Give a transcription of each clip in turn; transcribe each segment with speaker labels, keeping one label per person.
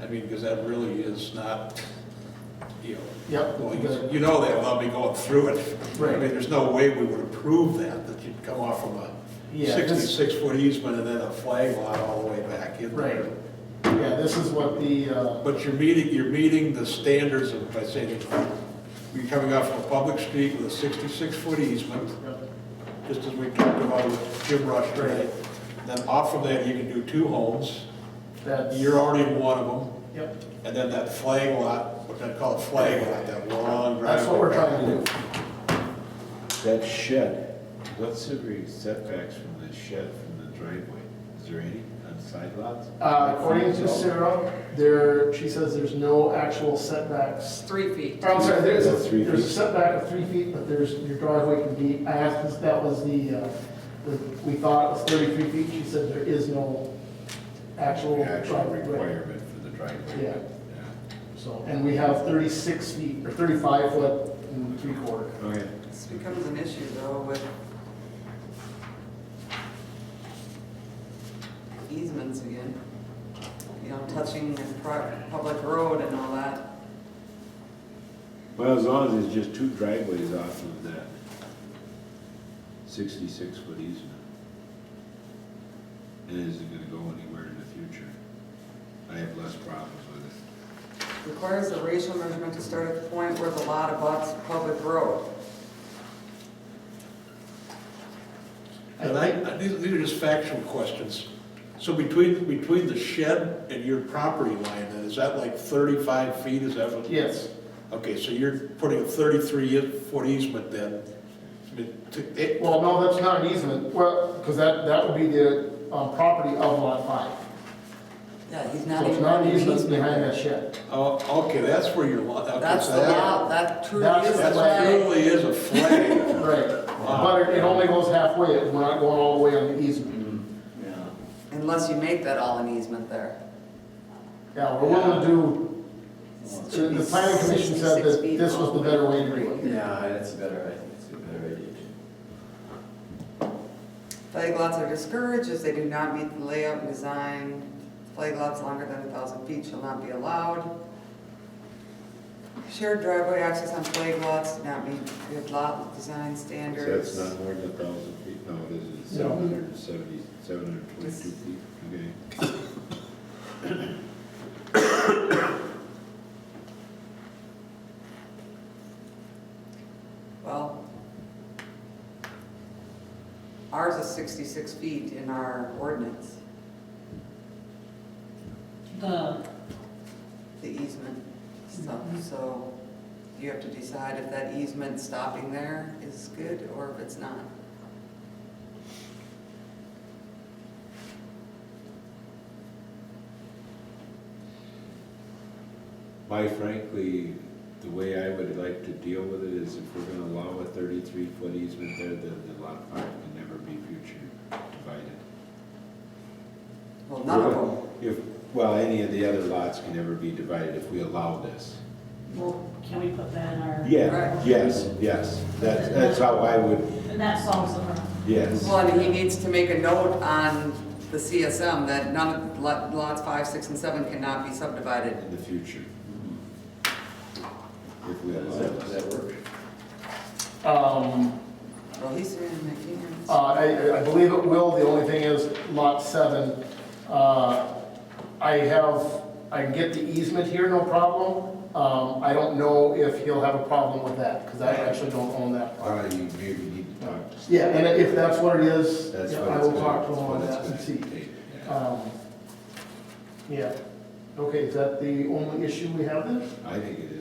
Speaker 1: I mean, because that really is not, you know.
Speaker 2: Yep.
Speaker 1: going- You know that without me going through it. I
Speaker 2: Right.
Speaker 1: mean, there's no way we would approve that, that you'd come off from a
Speaker 2: Yeah, this-
Speaker 1: sixty-six foot easement and then a flag lot all the way back in there.
Speaker 2: Right. Yeah, this is what the, uh,
Speaker 1: But you're meeting, you're meeting the standards of, by saying, you're coming off of a public street with a sixty-six foot easement, just as we talked about with Jim Rush today. Then off of that, you can do two homes,
Speaker 2: that's.
Speaker 1: you're already in one of them.
Speaker 2: Yep,
Speaker 1: And then that flag lot, what I call a flag lot, that long driveway.
Speaker 2: that's what we're trying to do.
Speaker 3: That shed, what's the re- setbacks from the shed from the driveway? Is there any on side lots?
Speaker 2: Uh, according to Sarah, there, she says there's no actual setbacks.
Speaker 4: Three feet.
Speaker 2: Oh, I'm sorry, there is,
Speaker 3: Well,
Speaker 2: a-
Speaker 3: three
Speaker 2: there's a
Speaker 3: feet.
Speaker 2: setback of three feet, but there's, your driveway can be, I asked if that was the, uh, the- we thought it was thirty-three feet, she said there is no actual
Speaker 3: The actual
Speaker 2: driveway.
Speaker 3: requirement for the driveway.
Speaker 2: Yeah.
Speaker 3: Yeah.
Speaker 2: So, and we have thirty-six feet, or thirty-five foot and three quarter.
Speaker 3: Okay.
Speaker 4: This becomes an issue though with easements again. You know, touching the pri- public road and all that.
Speaker 3: Well, as long as it's just two driveways off of that sixty-six foot easement. It isn't gonna go anywhere in the future. I have less problems with it.
Speaker 4: Requires the racial measurement to start at the point where the lot abuts the public road.
Speaker 1: And I, I- these these are just factual questions. So between, between the shed and your property line, then, is that like thirty-five feet, is that what?
Speaker 2: Yes,
Speaker 1: Okay, so you're putting a thirty-three e- foot easement then. I mean, to- it-
Speaker 2: well, no, that's not an easement, well, because that, that would be the, um, property of lot five.
Speaker 4: Yeah, he's
Speaker 2: So
Speaker 4: not
Speaker 2: it's
Speaker 4: even.
Speaker 2: not an easement behind that shed.
Speaker 1: Oh, okay, that's where your lot, okay.
Speaker 4: That's
Speaker 1: so
Speaker 4: the
Speaker 1: that-
Speaker 4: lot, that truly
Speaker 2: That's
Speaker 4: is
Speaker 2: the
Speaker 4: the
Speaker 1: That
Speaker 4: flag.
Speaker 1: truly is a flag.
Speaker 2: Right, but it- it only goes halfway, we're not going all the way on the easement.
Speaker 4: Unless you make that all an easement there.
Speaker 2: Yeah, we're willing to do, the
Speaker 4: It should be
Speaker 2: the planning commission said
Speaker 4: 66
Speaker 2: that
Speaker 4: feet
Speaker 2: this was
Speaker 4: all
Speaker 2: the
Speaker 4: way
Speaker 2: better
Speaker 4: to
Speaker 2: way to
Speaker 4: the
Speaker 2: do
Speaker 4: creek.
Speaker 2: it.
Speaker 5: Yeah, that's a better, I think it's a better idea.
Speaker 4: Flag lots are discouraged if they do not meet the layout and design. Flag lots longer than a thousand feet shall not be allowed. Shared driveway access on flag lots do not meet good lot design
Speaker 3: So
Speaker 4: standards.
Speaker 3: that's not more than a thousand feet, no, this is
Speaker 2: No.
Speaker 3: seven hundred and seventy, seven hundred and twenty-two feet, okay?
Speaker 4: Well, ours is sixty-six feet in our ordinance,
Speaker 6: The,
Speaker 4: the easement stuff, so you have to decide if that easement stopping there is good or if it's not.
Speaker 3: My frankly, the way I would like to deal with it is if we're gonna allow a thirty-three foot easement there, then the lot five can never be future divided.
Speaker 4: Well, none of them.
Speaker 3: If, well, any of the other lots can never be divided if we allow this.
Speaker 6: well, can we put that in our?
Speaker 3: Yeah, yes, yes, that's, that's how I would,
Speaker 6: And that solves the problem.
Speaker 3: yes.
Speaker 4: Well, and he needs to make a note on the CSM that none of, lot- lots five, six, and seven cannot be subdivided.
Speaker 3: In the future. If we allow
Speaker 5: Does that, does
Speaker 3: this.
Speaker 5: that work?
Speaker 2: Um,
Speaker 4: Well, he's doing it,
Speaker 2: uh, I, I believe it will, the only thing is lot seven, uh, I have, I can get the easement here, no problem. Um, I don't know if he'll have a problem with that, because I actually don't own that.
Speaker 3: All right, you maybe need to talk to.
Speaker 2: Yeah, and if that's what it is,
Speaker 3: That's
Speaker 2: yeah,
Speaker 3: what
Speaker 2: I
Speaker 3: it's
Speaker 2: will
Speaker 3: gonna-
Speaker 2: talk to him
Speaker 3: that's what
Speaker 2: on
Speaker 3: it's
Speaker 2: that and
Speaker 3: gonna
Speaker 2: see.
Speaker 3: take, yeah.
Speaker 2: Um, Yeah, okay, is that the only issue we have then?
Speaker 3: I think it is.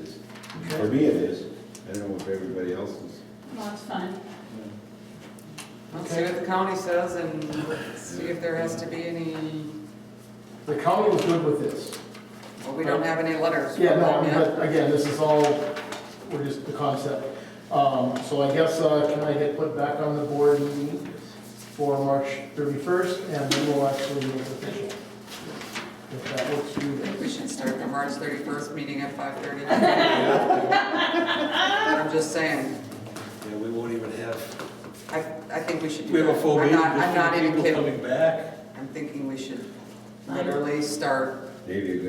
Speaker 3: For me, it is. I don't know if everybody else is.
Speaker 6: Well, it's fine.
Speaker 4: Let's see what the county says and let's see if there has to be any,
Speaker 2: The county was good with this.
Speaker 4: well, we don't have any letters. from
Speaker 2: Yeah, no, I mean,
Speaker 4: them yet.
Speaker 2: but again, this is all, we're just the concept. Um, so I guess, uh, can I get put back on the board meeting for March thirty-first, and then we'll actually make it official. If that works for you
Speaker 4: I think
Speaker 2: guys.
Speaker 4: We should start the March thirty-first meeting at five thirty. I'm just saying,
Speaker 1: Yeah, we won't even have,
Speaker 4: I, I think we should do
Speaker 1: we have
Speaker 4: that.
Speaker 1: a full
Speaker 4: I'm
Speaker 1: meeting,
Speaker 4: not, I'm
Speaker 1: just
Speaker 4: not
Speaker 1: few
Speaker 4: even
Speaker 1: people
Speaker 4: kidding.
Speaker 1: coming back.
Speaker 4: I'm thinking we should literally start
Speaker 3: Maybe a